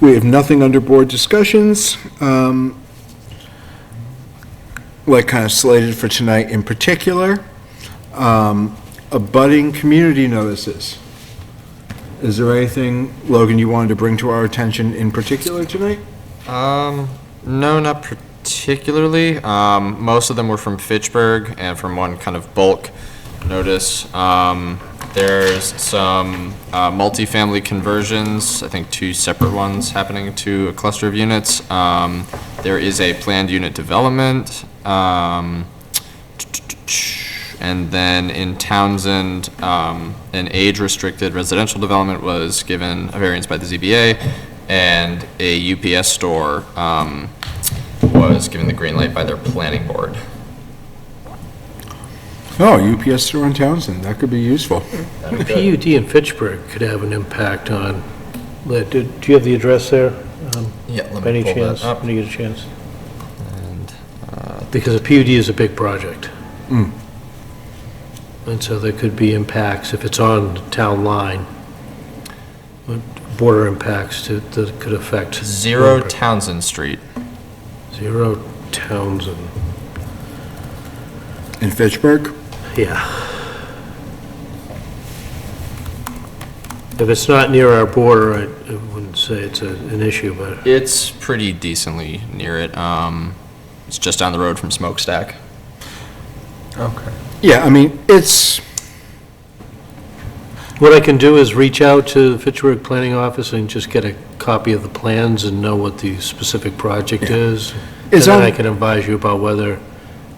We have nothing under board discussions, um, like kind of slated for tonight in particular. Um, Abutting community notices. Is there anything, Logan, you wanted to bring to our attention in particular tonight? Um, no, not particularly. Um, most of them were from Fitchburg and from one kind of bulk notice. Um, there's some uh, multifamily conversions, I think two separate ones happening to a cluster of units. Um, there is a planned unit development. Um, and then in Townsend, um, an age-restricted residential development was given a variance by the ZBA, and a UPS store um, was given the green light by their planning board. Oh, UPS store in Townsend, that could be useful. PUD in Fitchburg could have an impact on, Lit, do do you have the address there? um, Yeah, let By me any pull that chance, up. when you get a chance? And, uh, Because a PUD is a big project. Hmm. Mm. And so there could be impacts, if it's on the town line, but border impacts to- that could affect. Zero Townsend Street. Zero Townsend, In Fitchburg? yeah. If it's not near our border, I I wouldn't say it's a- an issue, but It's pretty decently near it. Um, It's just down the road from Smokestack. Okay. Yeah, I mean, it's, What I can do is reach out to the Fitchburg Planning Office and just get a copy of the plans and know what the specific project is. And It's then on- I can advise you about whether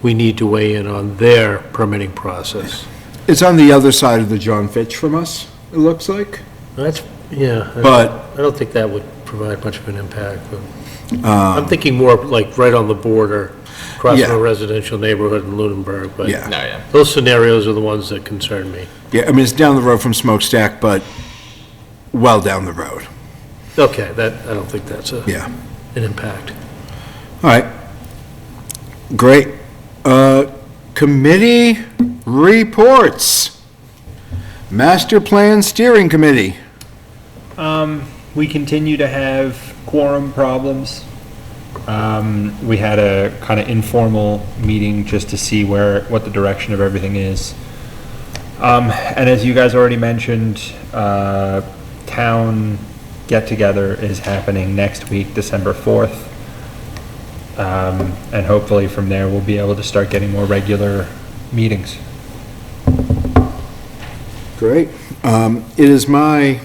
we need to weigh in on their permitting process. it's on the other side of the John Fitch from us, it looks like. That's, yeah. I- But- I don't think that would provide much of an impact, but I'm thinking more like right on the border, across from Um, Yeah. a residential neighborhood in Lunenburg, but Yeah. No, yeah. those scenarios are the ones that concern me. Yeah, I mean, it's down the road from Smokestack, but well down the road, Okay, that, I don't think that's a, yeah. an impact. All right. Great. Uh, Committee reports. Master Plan Steering Committee. Um, we continue to have quorum problems. Um, we had a kind of informal meeting just to see where, what the direction of everything is. Um, and as you guys already mentioned, uh, town get-together is happening next week, December fourth. Um, and hopefully from there, we'll be able to start getting more regular meetings. Great. Um, It is my,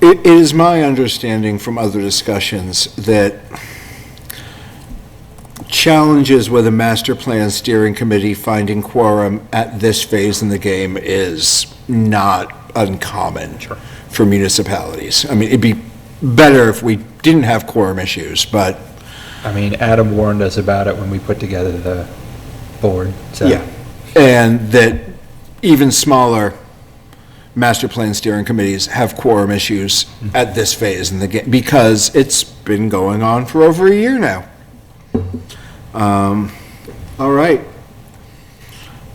it it is my understanding from other discussions that challenges with a master plan steering committee finding quorum at this phase in the game is not uncommon for municipalities. I mean, it'd be better if we didn't have quorum issues, but I mean, Adam warned us about it when we put together the board, so. Yeah, and that even smaller master plan steering committees have quorum issues at this phase in the game, because it's been going on for over a year now. Um, All right,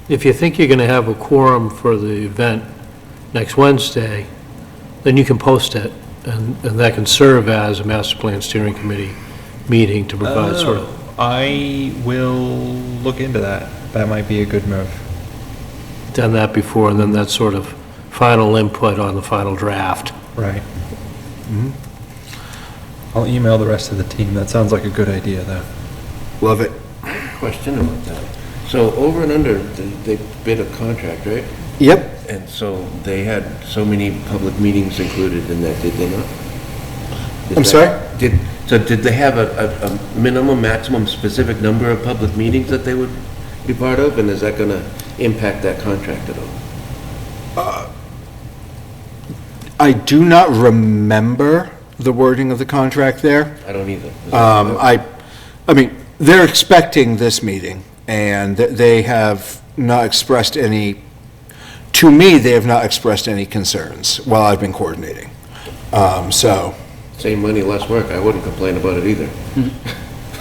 If you think you're going to have a quorum for the event next Wednesday, then you can post it, and and that can serve as a master plan steering committee meeting to provide sort of, I will look into that. That might be a good move. done that before, and then that sort of final input on the final draft. Right. I'll email the rest of the team. That sounds like a good idea, though. love it. Question about that. So over and under, they they bid a contract, right? Yep, And so they had so many public meetings included in that, did they not? Is I'm that- sorry? Did, so did they have a, a- a minimum, maximum, specific number of public meetings that they would be part of? And is that going to impact that contract at all? I do not remember the wording of the contract there. I don't either. Um, I, I mean, they're expecting this meeting, and th- they have not expressed any, to me, they have not expressed any concerns while I've been coordinating. Um, So, Same money, less work. I wouldn't complain about it either.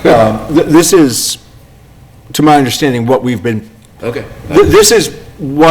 um, th- this is, to my understanding, what we've been, Okay. th- this is what